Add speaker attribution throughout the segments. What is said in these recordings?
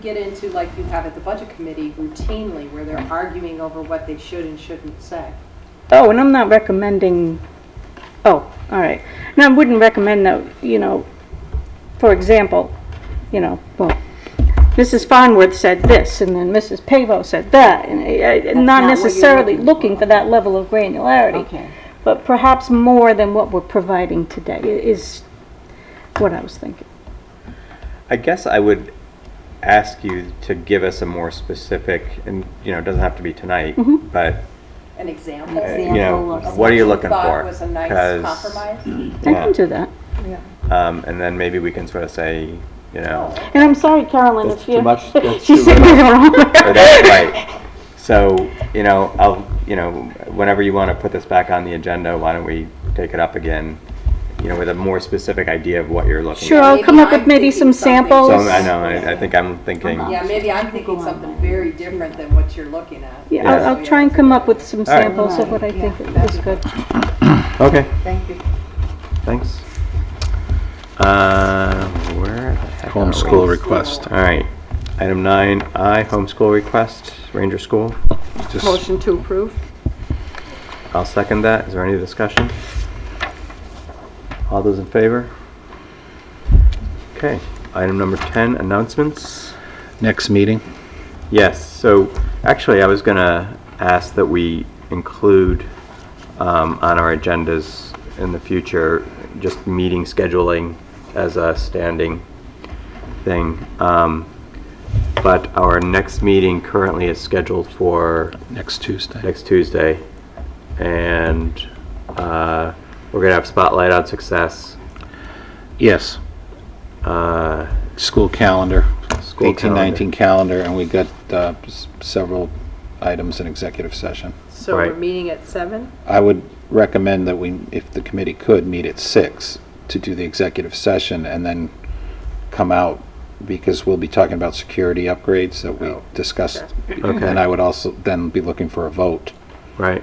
Speaker 1: get into, like you have at the budget committee routinely, where they're arguing over what they should and shouldn't say.
Speaker 2: Oh, and I'm not recommending, oh, all right. And I wouldn't recommend that, you know, for example, you know, well, Mrs. Farnworth said this, and then Mrs. Pavo said that, and I- I-
Speaker 3: not
Speaker 2: not
Speaker 3: what you're
Speaker 2: necessarily
Speaker 3: looking
Speaker 2: looking for that level of granularity.
Speaker 3: Okay.
Speaker 2: But perhaps more than what we're providing today i- is what I was thinking.
Speaker 4: I guess I would ask you to give us a more specific, and, you know, it doesn't have to be tonight, but,
Speaker 1: An example.
Speaker 4: uh, you know, what are you looking
Speaker 1: Thought
Speaker 4: for?
Speaker 1: was a nice
Speaker 4: 'Cause,
Speaker 1: compromise.
Speaker 2: I can
Speaker 4: yeah,
Speaker 2: do that.
Speaker 4: Um, and then maybe we can sort of say, you know,
Speaker 2: And I'm sorry, Carolyn,
Speaker 5: That's
Speaker 2: if
Speaker 5: too
Speaker 2: you...
Speaker 5: much- that's
Speaker 2: She
Speaker 5: too
Speaker 2: said me
Speaker 4: or
Speaker 2: wrong.
Speaker 4: that's right. So, you know, I'll, you know, whenever you want to put this back on the agenda, why don't we take it up again? You know, with a more specific idea of what you're looking
Speaker 2: Sure,
Speaker 4: at.
Speaker 2: I'll come up
Speaker 1: Maybe
Speaker 2: with
Speaker 1: I'm
Speaker 2: maybe
Speaker 1: thinking
Speaker 2: some
Speaker 1: something.
Speaker 2: samples.
Speaker 4: So I know, I, I think I'm thinking,
Speaker 1: Yeah, maybe I'm thinking something very different than what you're looking at.
Speaker 2: Yeah, I'll-
Speaker 4: Yeah.
Speaker 2: I'll try and come up with some
Speaker 4: All right.
Speaker 2: samples of what I think is good.
Speaker 4: okay.
Speaker 1: Thank you.
Speaker 4: Thanks. Uh, where the heck are we?
Speaker 5: Homeschool request.
Speaker 4: All right. Item nine I homeschool request, Ranger School.
Speaker 5: Just
Speaker 2: to approve.
Speaker 4: I'll second that. Is there any discussion? All those in favor? Okay. Item number ten, announcements.
Speaker 5: next meeting.
Speaker 4: Yes. So actually, I was gonna ask that we include um, on our agendas in the future just meeting scheduling as a standing thing. Um, but our next meeting currently is scheduled for
Speaker 5: Next Tuesday.
Speaker 4: next Tuesday, and uh, we're gonna have spotlight on success.
Speaker 5: Yes,
Speaker 4: Uh,
Speaker 5: school calendar,
Speaker 4: School
Speaker 5: eighteen nineteen
Speaker 4: calendar.
Speaker 5: calendar, and we got uh, s- several items in executive session.
Speaker 1: So
Speaker 4: we're Right.
Speaker 1: meeting at seven?
Speaker 5: I would recommend that we, if the committee could, meet at six to do the executive session and then come out because we'll be talking about security upgrades that we discussed.
Speaker 4: Oh. Okay.
Speaker 5: And I would also then be looking for a vote
Speaker 4: right.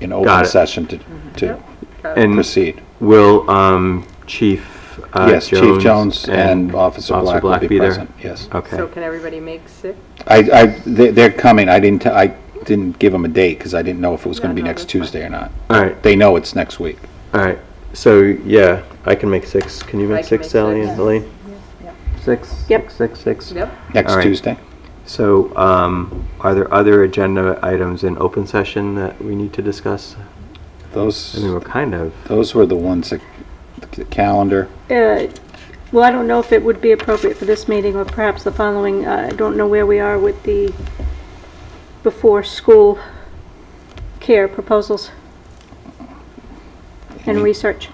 Speaker 5: in
Speaker 4: Got
Speaker 5: open
Speaker 4: it. Mm-hmm.
Speaker 5: session to, to
Speaker 4: And
Speaker 5: proceed.
Speaker 4: will um, Chief uh,
Speaker 5: Yes, Chief Jones and Officer
Speaker 4: Officer
Speaker 5: Black will be
Speaker 4: there?
Speaker 5: present. Yes.
Speaker 4: Okay.
Speaker 1: can everybody make six?
Speaker 5: I, I, they- they're coming. I didn't, t- I didn't give them a date because I didn't know if it was going to be next Tuesday or not.
Speaker 4: All right.
Speaker 5: They know it's next week.
Speaker 4: All right. So yeah, I can make six. Can you make
Speaker 1: can
Speaker 4: six,
Speaker 1: make
Speaker 4: Sally
Speaker 1: six.
Speaker 4: and Elaine? Six.
Speaker 2: Yep.
Speaker 4: Six. Six. six.
Speaker 5: Next
Speaker 4: All right.
Speaker 5: Tuesday.
Speaker 4: So um, are there other agenda items in open session that we need to discuss? I mean,
Speaker 5: Those,
Speaker 4: we're kind of.
Speaker 5: those were the ones that, the calendar.
Speaker 2: Uh, Well, I don't know if it would be appropriate for this meeting or perhaps the following. Uh, I don't know where we are with the before-school care proposals and
Speaker 4: Mm-hmm.
Speaker 5: Mm.
Speaker 2: research.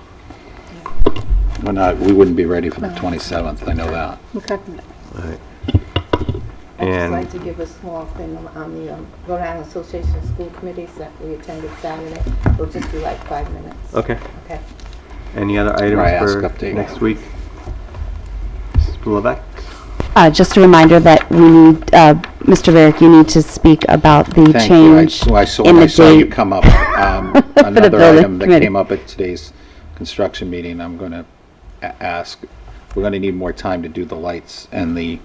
Speaker 5: We're not, we wouldn't be ready for the 27th, I know that.
Speaker 2: Okay.
Speaker 4: All right.
Speaker 6: I'd just
Speaker 4: And-
Speaker 6: like to give a small thing on- on the um, Rhode Island Association of School Committees that we attended Saturday. It'll just be like five minutes,
Speaker 4: Okay.
Speaker 6: okay?
Speaker 4: Any other
Speaker 5: Right,
Speaker 4: items
Speaker 5: ask
Speaker 4: for
Speaker 5: update.
Speaker 4: next week? Mrs. Blaveck?
Speaker 7: Uh, Just a reminder that we need, uh, Mr. Varick, you need to speak about the
Speaker 5: Thank you. I-
Speaker 7: change
Speaker 5: so I saw,
Speaker 7: in
Speaker 5: I
Speaker 7: the
Speaker 5: saw you
Speaker 7: date.
Speaker 5: come up. Um,
Speaker 7: the
Speaker 5: Another
Speaker 7: building
Speaker 5: item that
Speaker 7: committee.
Speaker 5: came up at today's construction meeting, I'm going to ask, we're going to need more time to do the lights and the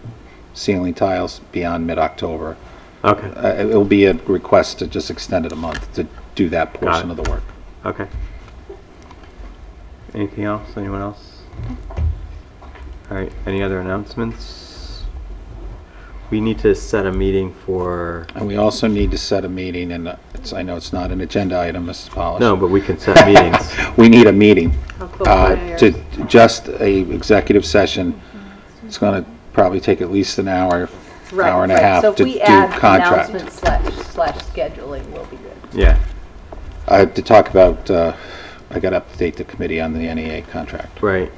Speaker 5: ceiling tiles beyond mid-October.
Speaker 4: Okay.
Speaker 5: Uh, it- It'll be a request to just extend it a month to do that portion
Speaker 4: it.
Speaker 5: of the work.
Speaker 4: Okay. Anything else? Anyone else? All right. Any other announcements? We need to set a meeting for.
Speaker 5: And we also need to set a meeting, and uh, it's, I know it's not an agenda item, Mrs. Polish.
Speaker 4: No, but we can set meetings.
Speaker 5: We need a meeting.
Speaker 1: How close
Speaker 5: uh,
Speaker 1: are you?
Speaker 5: to just a executive session, it's going to probably take at least an hour, hour and a half to do contract.
Speaker 6: slash, slash scheduling will be good.
Speaker 4: Yeah.
Speaker 5: Uh, To talk about, uh, I got to update the committee on the NEA contract.
Speaker 4: Right.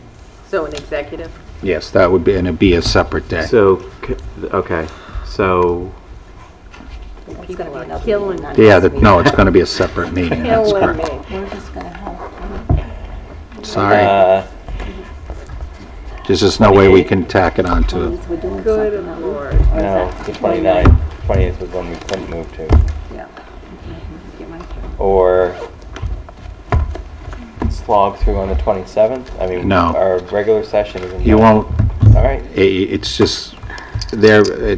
Speaker 1: So an executive?
Speaker 5: Yes, that would be, and it'd be a separate day.
Speaker 4: So, c- okay. So,
Speaker 6: It's gonna be another killing.
Speaker 5: Yeah, that- no, it's going to be a separate meeting. That's correct.
Speaker 6: We're just gonna have,
Speaker 4: Uh,
Speaker 5: Sorry, there's just no way we can tack Uh, it on to it.
Speaker 6: we're doing
Speaker 1: Good lord.
Speaker 4: no, the 29th. 20th was one we couldn't move to.
Speaker 1: Yeah.
Speaker 4: Or slog through on the 27th? I mean,
Speaker 5: No.
Speaker 4: regular session isn't.
Speaker 5: You won't,
Speaker 4: All right.
Speaker 5: i- i- it's just, there,